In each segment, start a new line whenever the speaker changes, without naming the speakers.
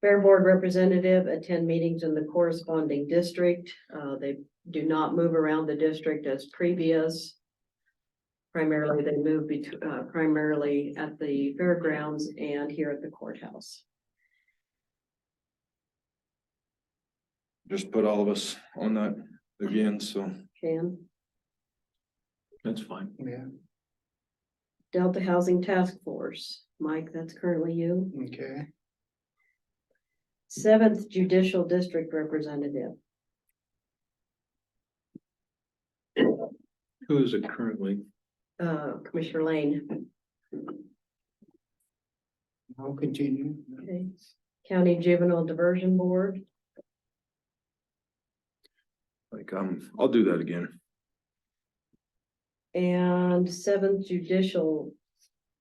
Fair Board Representative, attend meetings in the corresponding district. Uh, they do not move around the district as previous. Primarily, they move between, uh, primarily at the fairgrounds and here at the courthouse.
Just put all of us on that again, so
Can
that's fine.
Yeah,
Delta Housing Task Force, Mike, that's currently you.
okay.
Seventh Judicial District Representative,
Who is it currently?
uh, Commissioner Lane,
I'll continue.
Okay. County Juvenile Diversion Board,
Like, um, I'll do that again.
and seventh Judicial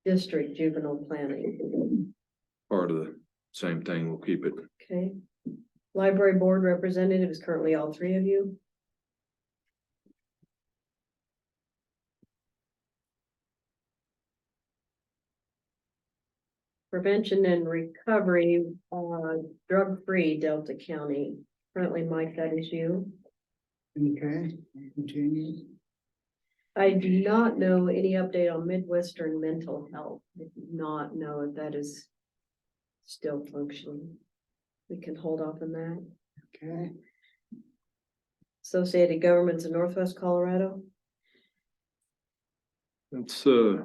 District Juvenile Planning.
Part of the same thing. We'll keep it.
Okay. Library Board Representative is currently all three of you. Prevention and Recovery, uh, Drug Free Delta County. Currently, Mike, that is you.
Okay, I'll continue.
I do not know any update on Midwestern mental health. I do not know if that is still functioning. We can hold off on that.
Okay,
Associated Governments of Northwest Colorado.
It's, uh,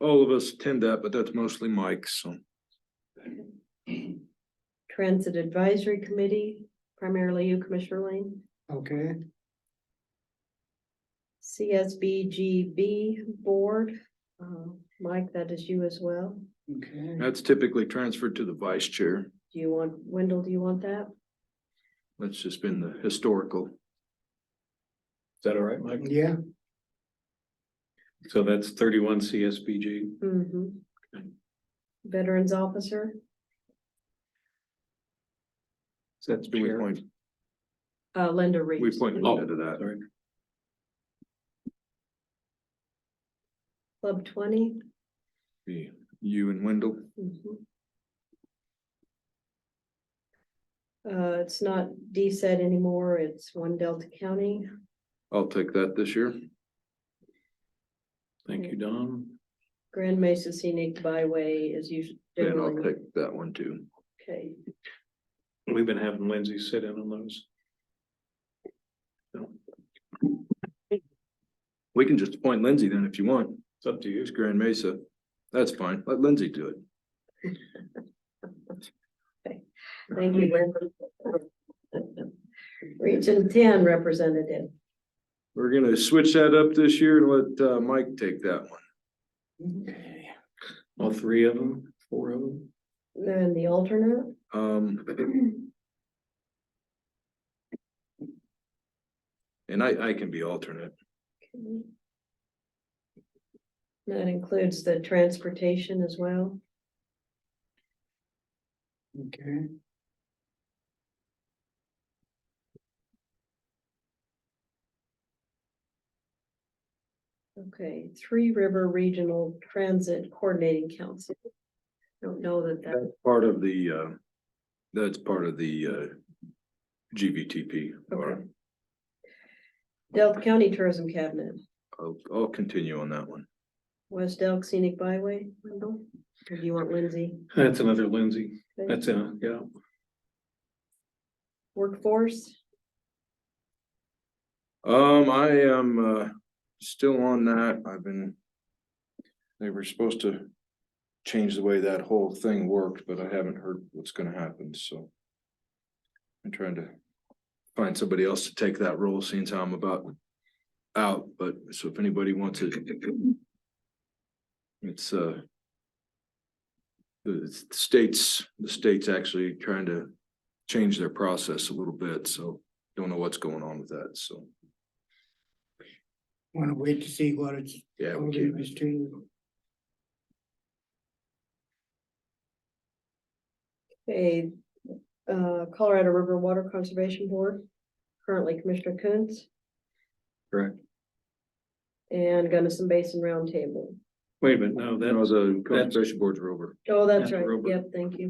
all of us tend that, but that's mostly Mike, so.
Transit Advisory Committee, primarily you, Commissioner Lane.
okay,
CSBGB Board, uh, Mike, that is you as well.
okay.
That's typically transferred to the vice chair.
Do you want, Wendell, do you want that?
That's just been the historical. Is that all right, Mike?
Yeah,
So that's thirty-one CSBG.
Mm-hmm. Veterans Officer,
That's Oh, we point,
uh, Linda Reeves.
we point Linda to that.
Club twenty.
Be You and Wendell.
Mhm. Uh, it's not DSET anymore, it's one Delta County.
I'll take that this year.
Thank you,
Don.
Grand Mesa Scenic Byway is usually.
And I'll take that one too.
Okay,
We've been having Lindsay sit in on those. We can just appoint Lindsay then if you want. It's up to you. It's Grand Mesa. That's fine. Let Lindsay do it.
thank you, Linda. Region ten representative,
We're gonna switch that up this year and let uh Mike take that one.
okay,
All three of them, four of them?
and the alternate,
Um. And I I can be alternate.
okay. That includes the transportation as well.
okay.
Okay, Three River Regional Transit Coordinating Council. Don't know that that,
That's part of the uh, that's part of the uh GVTP.
okay. Delta County Tourism Cabinet,
I'll, I'll continue on that one.
West Elk Scenic Byway, Wendell, or do you want Lindsay?
That's another Lindsay.
Okay.
That's a, yeah.
Workforce,
Um, I am, uh, still on that. I've been. They were supposed to change the way that whole thing worked, but I haven't heard what's gonna happen, so. I'm trying to find somebody else to take that role, seeing as how I'm about out, but so if anybody wants it. It's, uh. The it's the states, the state's actually trying to change their process a little bit, so don't know what's going on with that, so.
Wanna wait to see what it's,
Yeah,
I'll
we
leave
can,
this to you.
a uh, Colorado River Water Conservation Board, currently Commissioner Coons.
Correct.
And Gunnison Basin Roundtable.
Wait a minute, no,
that
that
was a
that's-
conservation boards were over.
Oh, that's
Yeah,
right,
Rober.
yep, thank you.